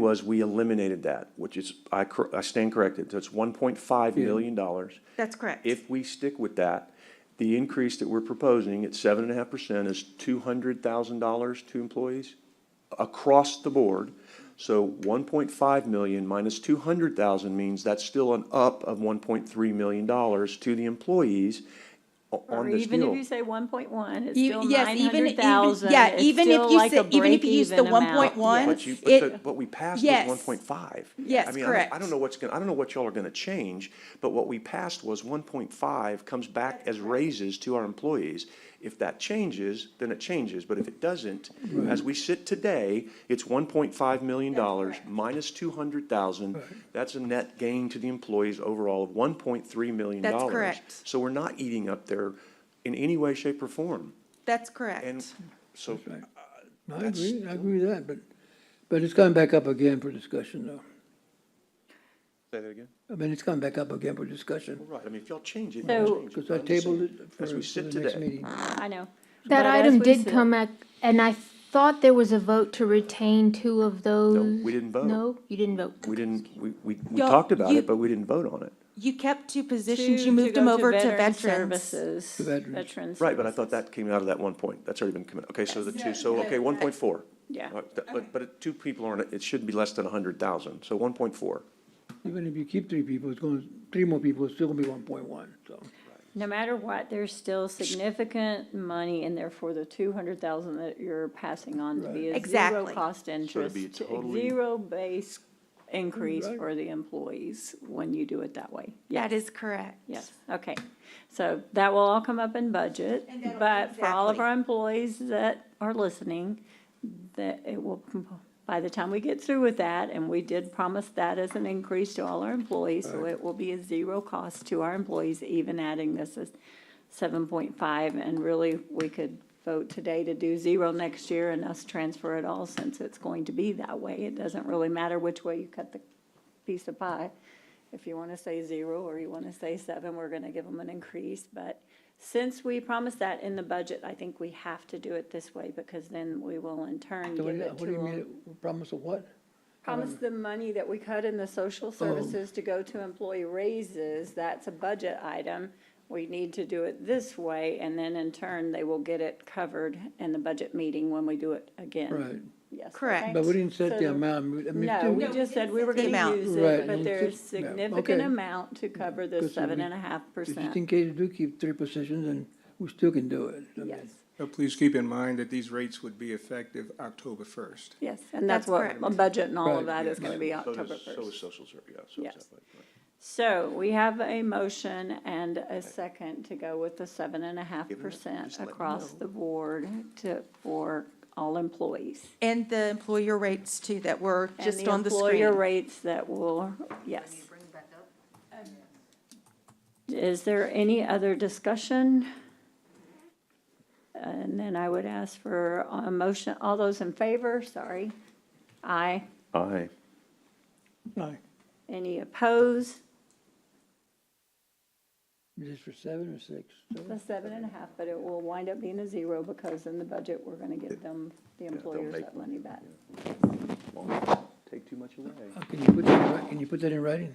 was we eliminated that, which is, I, cor- I stand corrected, that's one point five million dollars. That's correct. If we stick with that, the increase that we're proposing at seven and a half percent is two hundred thousand dollars to employees across the board. So one point five million minus two hundred thousand means that's still an up of one point three million dollars to the employees o- Or on this even if you deal. say one point one, it's E- still yes, nine even- even- hundred thousand. yeah, even if you say- even if you use the 1.1, But you, but it- the, but we passed Yes. was one point five. Yes, I mean, I don't- I correct. don't know what's gonna, I don't know what y'all are gonna change, but what we passed was one point five comes back as raises to our employees. If that changes, then it changes, but if it doesn't, as we sit today, it's one point five million dollars minus two hundred thousand. That's a net gain to the employees overall of one point three million dollars. That's correct. So we're not eating up there in any way, shape, or form, That's correct. and so. right. No, I That's- agree, I agree with that, but, but it's gone back up again for discussion though. Say that again? I mean, it's gone back up again for discussion, Right, I mean, if y'all change it, So- y'all change it. because I I'm just tabled it saying, for As we for sit the next today, meeting. I know. That But as item we did said- come at, and I thought there was a vote to retain two of those. we didn't vote. No, you didn't vote. we didn't, we, we, we Y'all- talked about you- it, but we didn't vote on it. You kept two to- positions, to you moved go them over to Veteran veterans. Services, To veterans. Veterans. Right, but I thought that came out of that one point, that's already been committed, okay, so the two, so, okay, one point four. Yeah. But, but it- two people aren't, it should be less than a hundred thousand, so one point four. Even if you keep three people, it's going, three more people, it's still gonna be one point one, so. No matter what, there's still significant money in there for the two hundred thousand that you're passing on to be a zero Exactly. cost interest. be totally- Zero base increase Right. for the employees when you do it that way. Yeah. That is correct. Yes, okay. So that will all come up in budget, but for all of exactly. our employees that are listening, that it will, by the time we get through with that, and we did promise that as an increase to all our employees, so it will be a zero cost to our employees, even adding this as seven point five, and really, we could vote today to do zero next year and us transfer it all, since it's going to be that way. It doesn't really matter which way you cut the piece of pie. If you want to say zero or you want to say seven, we're going to give them an increase. But since we promised that in the budget, I think we have to do it this way because then we will in turn give So what do you- it what to do you mean, them. promise of what? Promise the money that we cut in the Oh. social services to go to employee raises, that's a budget item. We need to do it this way and then in turn, they will get it covered in the budget meeting when we do it again. Right, Yes. Correct. okay? but we didn't So set the the- amount, I mean. no, do we just said we were the gonna amount. use Right, it, but you there's just- yeah, significant okay. amount to cover Good, so the we- seven and a half Just in percent. case you do keep three positions, and we still can do it. I mean, Yes, But please keep in mind that these rates would be effective October first. yes, and that's That's what, correct. a budget and all of Right, that is yeah. gonna be So October does, so is first. social service, yeah, so is Yes. that, right, right. So we have a motion and a second to go with the seven and a half Give it up, percent just let me across know. the board to, for all employees. And the employer rates too that were And just on the Employer screen. rates that will, yes. Um, Is there any other discussion? And then I would ask for a motion, all those in favor, sorry. Aye. Aye. Aye. Any opposed? Is this for seven or six? The seven and a half, but it will wind up being a zero because in the budget, we're gonna give them, the employers make that money back. Well, Take too much away. Uh, Can you put that, in wri- can you put that in writing?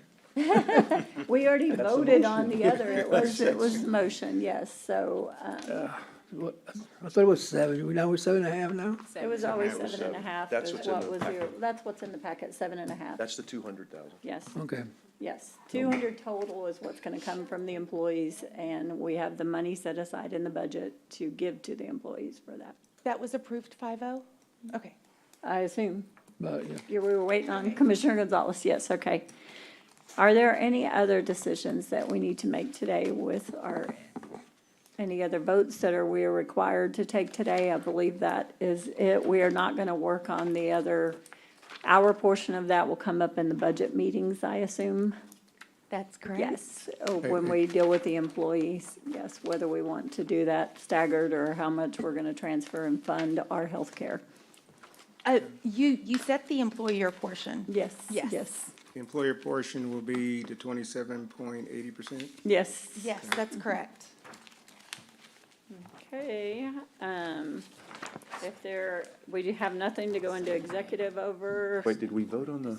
We already That's a voted on the other, it was, it was the motion, yes, so, um, What- I thought it was seven, we now we're seven and a half now? it was always Yeah, it was seven and a seven. half That's is what's in what the was packet. your, that's what's in the packet, seven and a half, That's Mm-hmm. the two hundred thousand. yes. Okay, Yes, two hundred total is what's gonna come from the employees, and we have the money set aside in the budget to give to the employees for that. That was approved five oh? Mm-hmm. Okay. I assume, but, yeah, you, we were waiting on Commissioner Gonzalez, yes, okay. Are there any other decisions that we need to make today with our, any other votes that are, we are required to take today? I believe that is it, we are not gonna work on the other, our portion of that will come up in the budget meetings, I assume? That's correct. Yes, uh, when we deal with the employees, yes, whether we want to do that staggered or how much we're gonna transfer and fund our healthcare. Uh, you, you set the employer portion. Yes, Yes. yes, The employer portion will be the twenty-seven point eighty percent. yes. Yes, that's correct. Okay, um, If there, we have nothing to go into executive over. Wait, did we vote on the?